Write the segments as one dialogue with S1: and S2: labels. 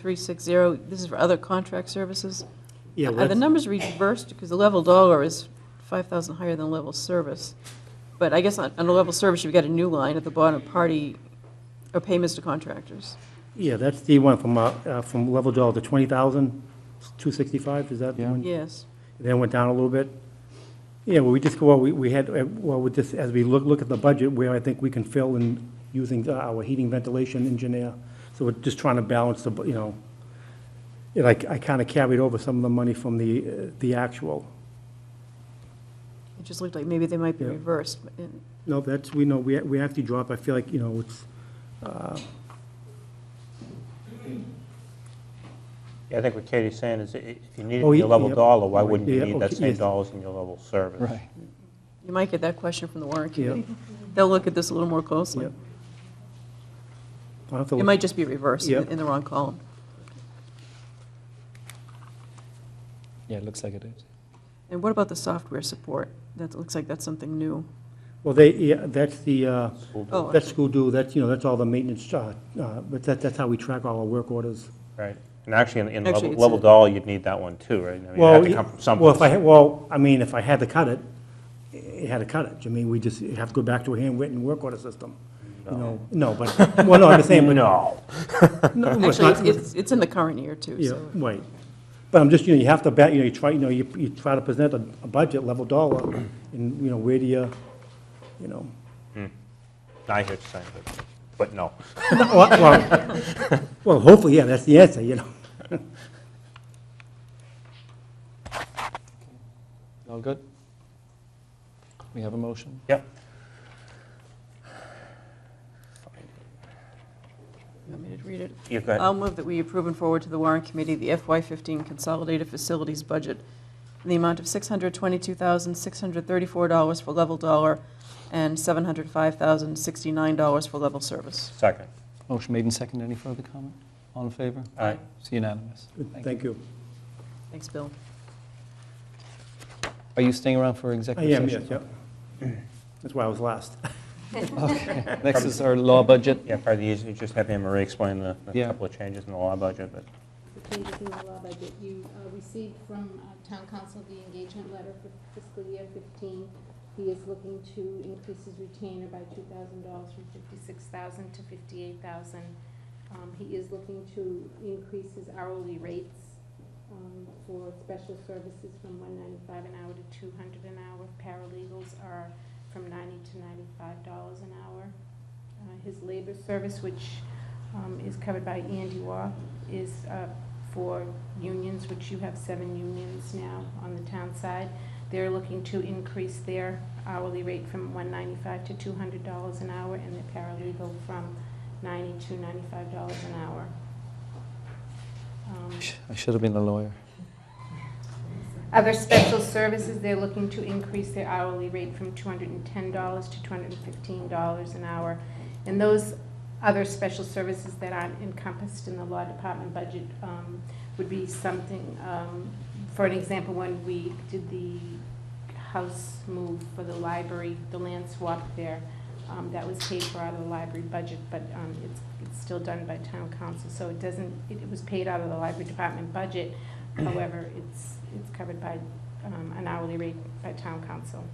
S1: 52360, this is for other contract services.
S2: Yeah,
S1: Are the
S2: let's,
S1: numbers reversed, because the level dollar is 5,000 higher than level service? But I guess on on the level service, you've got a new line at the bottom, party, or payments to contractors.
S2: yeah, that's the one from, uh, uh, from level dollar to 20,265, is that the
S3: Yeah.
S2: one?
S1: Yes.
S2: Then went down a little bit. Yeah, well, we just go, well, we, we had, uh, well, with this, as we look, look at the budget, where I think we can fill in using uh, our heating ventilation engineer. So we're just trying to balance the, bu- you know, and I, I kind of carried over some of the money from the, uh, the actual.
S1: It just looked like maybe they might be
S2: Yeah.
S1: reversed. but in-
S2: No, that's, we know, we, we actually drop, I feel like, you know, it's,
S4: I think what Katie's saying is i- if you need it
S2: Oh,
S4: in your
S2: ye-
S4: level
S2: yep.
S4: dollar, why wouldn't you
S2: Yeah, oh,
S4: need that
S2: okay,
S4: same
S2: yes.
S4: dollars in your level service?
S3: Right.
S1: You might get that question from the warrant
S2: Yeah.
S1: committee. They'll look at this a little more
S2: yeah.
S1: closely.
S2: I'll have to
S1: It
S2: look-
S1: might just be reversed in
S2: Yeah.
S1: in the wrong column.
S3: Yeah, it looks like it is.
S1: And what about the software support? That looks like that's something new.
S2: Well, they, yeah, that's the, uh,
S4: School
S1: Oh,
S2: That's
S1: okay.
S2: school do, that's, you know, that's all the maintenance, uh, uh, but that, that's how we track all our work orders.
S4: Right. And actually, in- in level
S1: Actually, it's
S4: level
S1: a-
S4: dollar, you'd need that one too, right? I mean, it
S2: Well,
S4: had to come from
S2: Well, if I,
S4: someplace.
S2: had- well, I mean, if I had to cut it, it had to cut it. I mean, we just have to go back to a handwritten work order system, you know? No, but, well, no, I'm just saying, but.
S4: No.
S2: no, well, it's
S1: Actually,
S2: not-
S1: it's- it's, it's in the current year, too,
S2: Yeah,
S1: so.
S2: right. But I'm just, you know, you have to, ba- you know, you try, you know, you, you try to present a, a budget level dollar, and, you know, where do you, you know?
S4: I hear what you're saying, but- but no.
S2: Well, Well, well, hopefully, yeah, that's the answer, you know?
S3: All good? We have a motion?
S4: Yep.
S1: You want me to read it?
S4: You go ahead.
S1: I'll move that we approve and forward to the Warren Committee the FY15 Consolidated Facilities Budget in the amount of $622,634 for level dollar and $705,069 for level service.
S4: Second.
S3: Motion made and seconded. Any further comment? All in favor?
S4: All right.
S3: It's unanimous.
S2: Thank you.
S1: Thanks, Bill.
S3: Are you staying around for
S2: I
S3: executive
S2: am,
S3: session?
S2: yes, yep. That's why I was last.
S3: Okay. Next is our law budget.
S4: Yeah, probably easier to just have Anne Marie explain the the
S3: Yeah.
S4: couple of changes in the law budget, but
S5: the changes in the law budget. You uh, received from uh, town council the engagement letter for fiscal year 15. He is looking to increase his retainer by $2,000 from 56,000 to 58,000. Um, He is looking to increase his hourly rates um, for special services from 195 an hour to 200 an hour. Paralegals are from 90 to 95 dollars an hour. Uh, His labor service, which um, is covered by Andy Waugh, is uh, for unions, which you have seven unions now on the town side. They're looking to increase their hourly rate from $195 to $200 an hour, and the paralegal from $90 to $95 an hour. Um,
S3: I should have been a lawyer.
S5: Other special services, they're looking to increase their hourly rate from $210 to $215 an hour. And those other special services that aren't encompassed in the law department budget um, would be something, um, for an example, when we did the house move for the library, the land swap there, um, that was paid for out of the library budget, but um, it's it's still done by town council, so it doesn't, it it was paid out of the library department budget, However, it's, it's covered by um, an hourly rate by town council.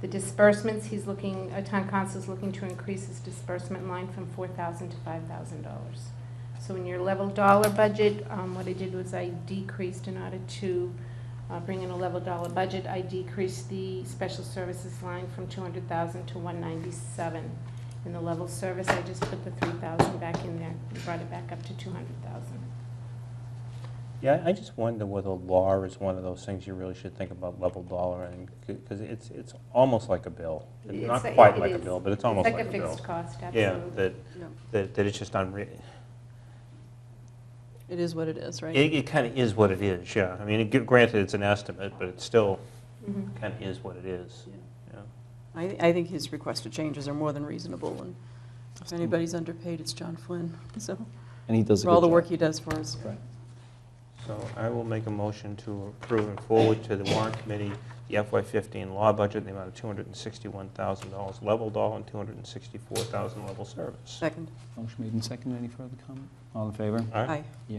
S5: The disbursements, he's looking, uh, town council's looking to increase his disbursement line from four thousand to five thousand dollars. So in your level dollar budget, um, what I did was I decreased in order to uh, bring in a level dollar budget, I decreased the special services line from two hundred thousand to one ninety-seven. In the level service, I just put the three thousand back in there, brought it back up to two hundred thousand.
S4: Yeah, I just wonder whether law is one of those things you really should think about level dollar and, because it's, it's almost like a bill.
S5: It's
S4: Not
S5: a-
S4: quite
S5: it
S4: like a
S5: is.
S4: bill, but it's almost like a
S5: It's like a
S4: bill.
S5: fixed cost,
S4: Yeah,
S5: absolutely.
S4: that,
S1: Yeah.
S4: that that it's just unre,
S1: It is what it is, right?
S4: it, it kind of is what it is, yeah. I mean, it- granted, it's an estimate, but it still
S5: Mhm.
S4: kind of is what it is. yeah.
S1: I, I think his requested changes are more than reasonable, and if anybody's underpaid, it's John Flynn, so,
S3: And he does a
S1: for
S3: good job.
S1: all the work he does for us.
S3: Right.
S4: So I will make a motion to approve and forward to the warrant committee the FY15 law budget in the amount of $261,000 level dollar and $264,000 level service.
S1: Second.
S3: Motion made and seconded. Any further comment? All in favor?
S4: All right?
S1: Aye.